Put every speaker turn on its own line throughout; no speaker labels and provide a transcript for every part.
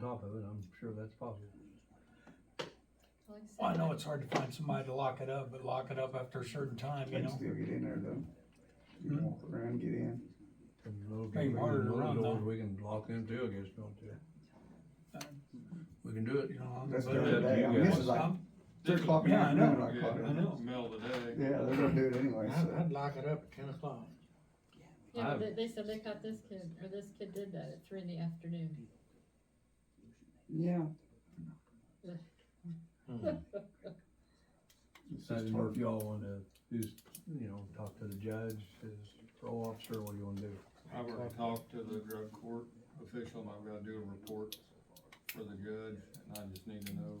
top of it, I'm sure that's possible.
Like I
Well, I
said,
know it's hard to find somebody to lock it up, but lock it up after a certain time,
They
you
can
know?
still get in there though. You can
Hmm.
walk around, get in.
And those-
Make 'em harder to
those
run,
doors
though.
We can lock them too, I guess, don't we?
Uh,
We can do it.
You know,
That's
but-
the other day. I mean, this is like
I'm-
three o'clock in the
Yeah, I
afternoon
know.
I caught
I
it.
know.
Middle of the day.
Yeah, they're gonna do it anyway,
I'd,
so.
I'd lock it up at ten o'clock.
Yeah,
I've-
but they, they said they caught this kid, or this kid did that at three in the afternoon.
Yeah.
Mhm.
It's
I
just
didn't know
hard.
if y'all wanna just, you know, talk to the judge, his parole officer, what do you wanna do?
I've already talked to the drug court official, and I've gotta do a report for the judge, and I just need to know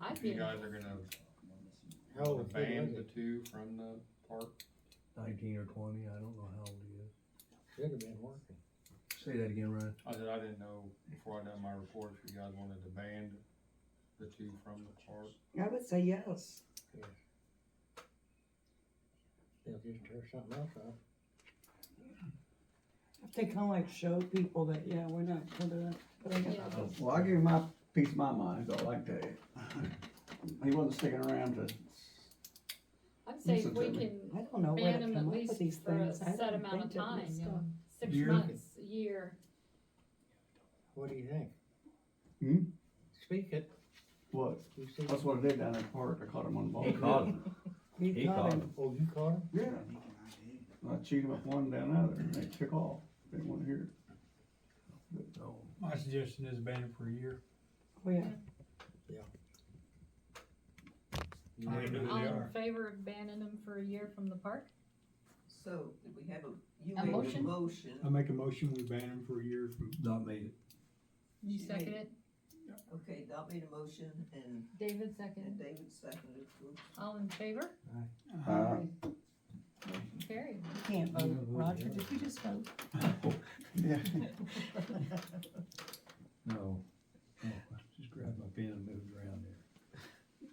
I
if you
think,
guys are gonna
How old the kid
ban
was
the
it?
two from the park.
Nineteen or twenty, I don't know how old he is.
Should have been working.
Say that again, Ryan.
I said, I didn't know before I done my report if you guys wanted to ban the two from the park.
I would say yes.
They'll just tear something else up.
If they kind of like show people that, yeah, we're not for the, but I guess-
Yeah.
Well, I give him my piece of my mind, is all I can tell you. He wasn't sticking around to,
I'd say if
Listen
we
to me.
can
I don't know where
ban
to
them at
come up with these
least for a
things. I
set
don't
amount of
think that
time,
this
you know,
stuff-
six
Year?
months, a year.
What do you think?
hmm,
Speak it.
what?
You see?
That's what I did down at the park, I caught him on the ball.
He caught him.
You
He
caught
caught
him.
him.
Oh, you caught him?
Yeah. I cheated with one down the other, and they took off, they didn't wanna hear
No.
My suggestion is ban it for a year.
Oh, yeah.
You
I
ain't
know.
doing
All
They
it.
in
are.
favor of banning them for a year from the park?
So, did we have a, you
A
made a
motion?
motion,
I make a motion, we ban him for a year from.
Not made it.
You
Yeah.
second it?
okay, Dot made a motion and,
David
and
seconded.
David seconded it.
All in favor?
Uh,
Carried.
You can't
You
vote.
know what,
Roger,
yeah.
did you just vote?
Yeah.
No. Oh, I Just grabbed my pen and moved around there.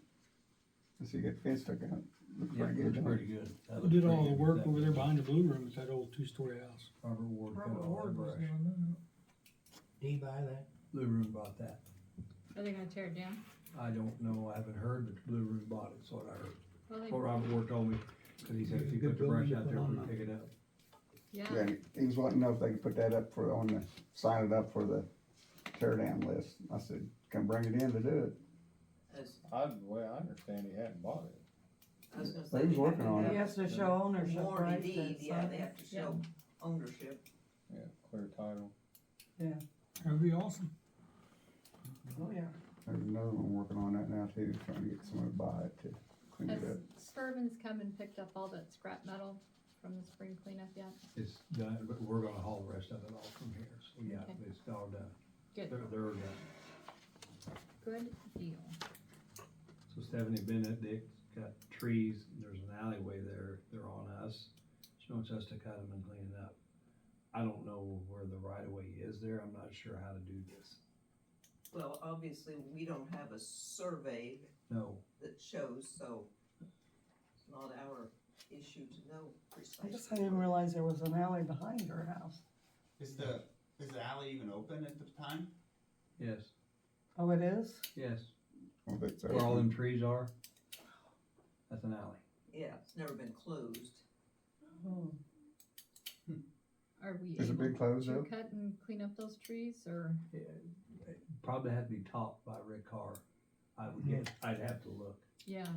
So you got the fence took out. Looked
Yeah,
pretty
it
good,
looks
didn't it?
pretty good. That
Who
looks
did
pretty
all the
good.
work
That
over there
was
behind the blue room, it's that old two-story house.
Robert Ward cut
Robert
all that
Ward was
brush.
Do you buy that?
Blue Room bought that.
Are they gonna tear it down?
I don't know, I haven't heard, but Blue Room bought it, so I heard.
Well,
What
they,
Robert Ward told me, cause he said if you put the brush out there, we pick it up.
yeah,
Yeah, he was wanting to know if they could put that up for, on the, sign it up for the tear down list. I said, come bring it in to do it.
As-
I, the way I understand, he hadn't bought it.
I was gonna
They
say
was
they have
working on
have
it.
You have to show ownership,
Warranty
right?
deed,
That's
yeah,
all.
they have to
Yeah.
show ownership.
Yeah, clear title.
That'd be awesome.
Oh, yeah.
There's another one working on that now too, trying to get someone to buy it to clean
has
it up.
Skirvin's come and picked up all that scrap metal from the spring cleanup yet?
It's done, but we're gonna haul the rest of it off from here, so yeah,
Okay.
it's all done.
Good.
They're, they're done.
Good deal.
So Stephanie Bennett, they got trees, there's an alleyway there, they're on us. She wants us to cut them and clean it up. I don't know where the right of way is there, I'm not sure how to do this.
Well, obviously, we don't have a survey
No,
that shows, so it's not our issue to know
I
precisely.
guess I didn't realize there was an alley behind your house.
Is the, is the alley even open at the time?
yes,
Oh, it is?
yes,
Well, that's-
where all them trees are, that's an alley.
Yeah, it's never been closed.
Oh.
Are we
Is it
able
been closed
to
up?
cut and clean up those trees or?
Yeah, it Probably had to be topped by Rick Carr, I would guess, Hmm. I'd have to look.
Yeah,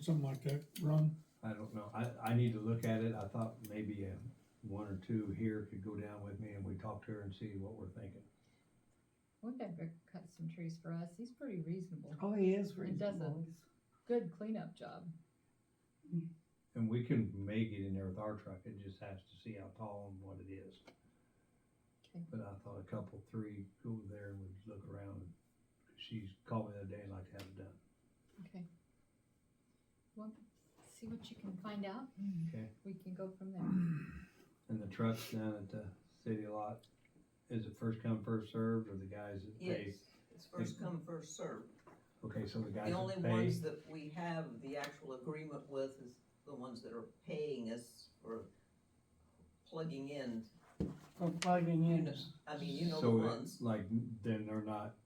Something like that, run.
I don't know, I, I need to look at it, I thought maybe uh, one or two here could go down with me and we talk to her and see what we're thinking.
we've had Rick cut some trees for us. He's pretty reasonable.
Oh, he is
It doesn't.
reasonable.
Good cleanup job.
And we can make it in there with our truck, it just has to see how tall and what it is.
Okay.
But I thought a couple, three, go there and we'd look around, and she's called me the other day and like to have it done.
Okay. Well, see what you can find out.
Hmm.
Okay.
We can go from there.
And the trucks down at the city lot, is it first come, first served, or the guys that pay?
Yes, it's first come, first served.
Okay, so the guys
The only
that pay,
ones that we have the actual agreement with is the ones that are paying us for plugging in.
For plugging
You
Oh, in.
know, I mean, you know the
so
ones.
it's like, then they're not